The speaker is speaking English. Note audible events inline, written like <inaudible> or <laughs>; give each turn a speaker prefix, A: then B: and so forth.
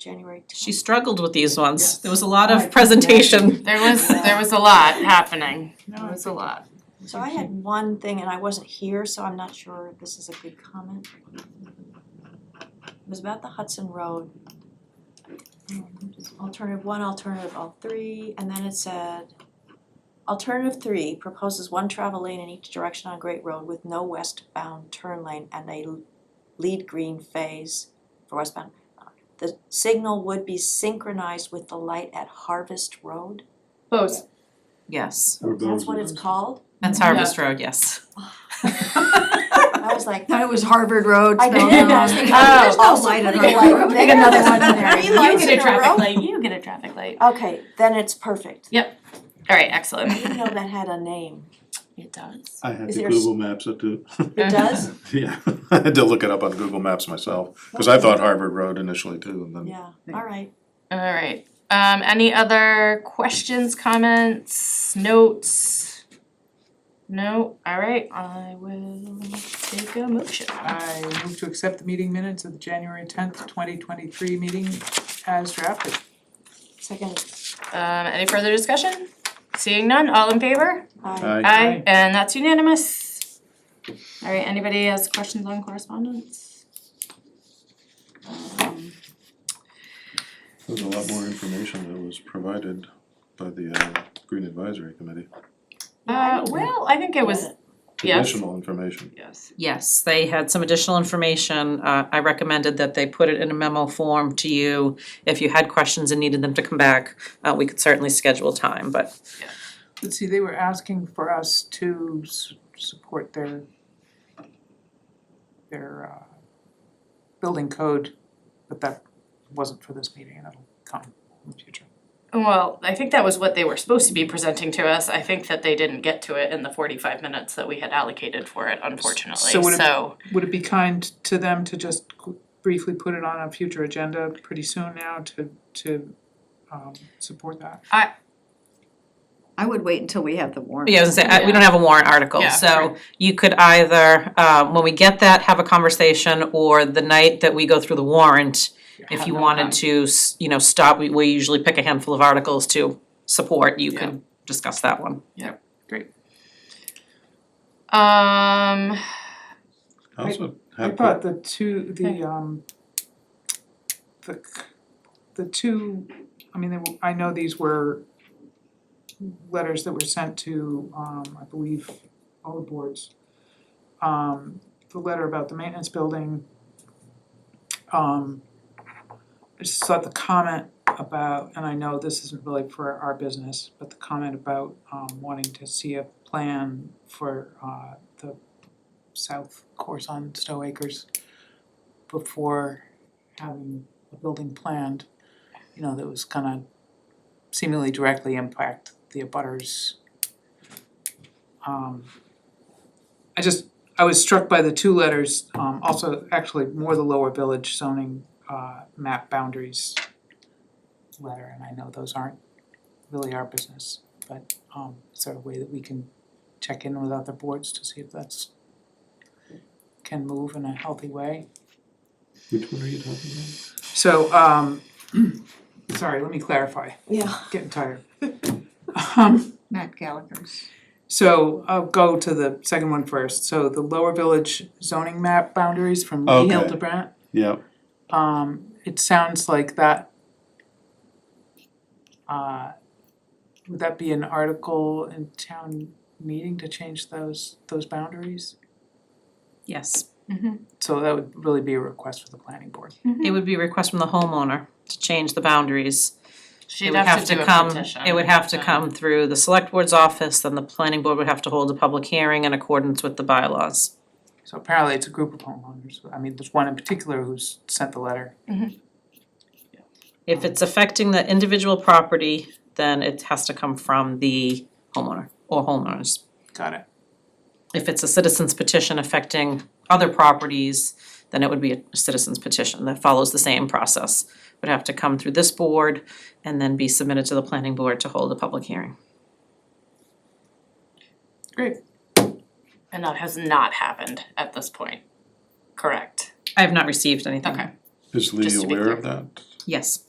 A: January tenth.
B: She struggled with these ones.
C: Yes.
B: There was a lot of
A: Right.
B: presentation.
D: There was, there was a lot happening, there was a lot.
A: So I had one thing and I wasn't here, so I'm not sure if this is a good comment. It was about the Hudson Road. Alternative one, alternative all three, and then it said, alternative three proposes one travel lane in each direction on Great Road with no westbound turn lane and a lead green phase for westbound. The signal would be synchronized with the light at Harvest Road.
D: Both.
B: Yes,
A: That's what it's called.
B: that's Harvest Road, yes.
A: I was like,
E: Thought it was Harvard Road.
A: I
E: spelled
A: did, I
E: wrong.
A: was thinking, there's no
E: Oh.
A: light on
E: Putting
A: Harvard
E: a light-
A: Road.
E: putting another one in <laughs> there.
A: Three
D: You
A: lights in
D: get a
A: a
D: traffic
A: row?
D: light, you get a traffic light.
A: Okay, then it's perfect.
D: Alright,
A: I didn't
D: excellent.
A: know that had a name.
D: <laughs> It does.
F: I had
A: Is
F: the
A: there s-
F: Google Maps up to, <laughs>
A: It does?
F: yeah, I had to look it up on Google Maps myself, cause I thought Harvard Road initially too, and then
A: Yeah, all right.
D: Alright, um, any other questions, comments, notes? No, alright, I will take a motion.
C: I move to accept the meeting minutes of the January tenth, twenty twenty-three meeting as drafted.
A: Second,
D: Um, any further discussion? Seeing none, all in favor?
A: I,
F: I,
D: Aye, and that's unanimous. Alright, anybody has questions on correspondence? Um,
F: there's a lot more information that was provided by the uh Green Advisory Committee,
D: Uh, well, I think it was, yes,
F: additional information.
D: yes,
B: Yes, they had some additional information. Uh, I recommended that they put it in a memo form to you. If you had questions and needed them to come back, uh, we could certainly schedule time, but
C: But see, they were asking for us to s- support their their uh building code, but that wasn't for this meeting, and that'll come in the future.
D: well, I think that was what they were supposed to be presenting to us, I think that they didn't get to it in the forty-five minutes that we had allocated for it, unfortunately,
C: So would it-
D: so,
C: Would it be kind to them to just qu- briefly put it on a future agenda pretty soon now to to um support that?
E: I would wait until we have the warrant.
B: yeah, I was gonna say, I- we don't have a warrant article,
D: Yeah.
B: so you could either, uh, when we get that, have a conversation, or the night that we go through the warrant, if
D: Have
B: you
D: them
B: wanted
D: come.
B: to, s- you know, stop, we, we usually pick a handful of articles to support, you could discuss that one.
D: um,
F: I also
C: I
F: had,
C: thought the two,
D: Okay.
C: the um the c- the two, I mean, they were, I know these were letters that were sent to um I believe all the boards. Um the letter about the maintenance building. Um I just thought the comment about, and I know this isn't really for our business, but the comment about um wanting to see a plan for uh the south course on Stowe Acres before having a building planned, you know, that was gonna seemingly directly impact the abutters. Um, I just, I was struck by the two letters, um, also actually more the lower village zoning, uh, map boundaries letter, and I know those aren't really our business, but, um, is there a way that we can check in with other boards to see if that's can move in a healthy way.
F: which one are you talking about?
C: So, um, <clears throat> sorry, let me clarify,
A: yeah,
C: getting tired. Um,
E: Matt Gallagher's.
C: so I'll go to the second one first, so the Lower Village zoning map boundaries from Lee Hill
F: Okay.
C: to Brent.
F: Yeah,
C: Um, it sounds like that. Uh, would that be an article in town meeting to change those, those boundaries?
B: Yes.
C: So that would really be a request for the planning board.
D: Hmm.
B: It would be a request from the homeowner to change the boundaries. It
D: she'd
B: would
D: have to do a petition.
B: come, it would have to come through the select board's office, then the planning board would have to hold a public hearing in accordance with the bylaws.
C: So apparently it's a group of homeowners, I mean, there's one in particular who's sent the letter.
B: If it's affecting the individual property, then it has to come from the homeowner or homeowners.
C: Got it.
B: If it's a citizen's petition affecting other properties, then it would be a citizen's petition that follows the same process. Would have to come through this board and then be submitted to the planning board to hold a public hearing.
C: Great.
D: And that has not happened at this point, correct?
B: I have not received anything.
D: Okay.
F: is Lee
D: Just to be
F: aware of
D: clear.
F: that?
B: Yes.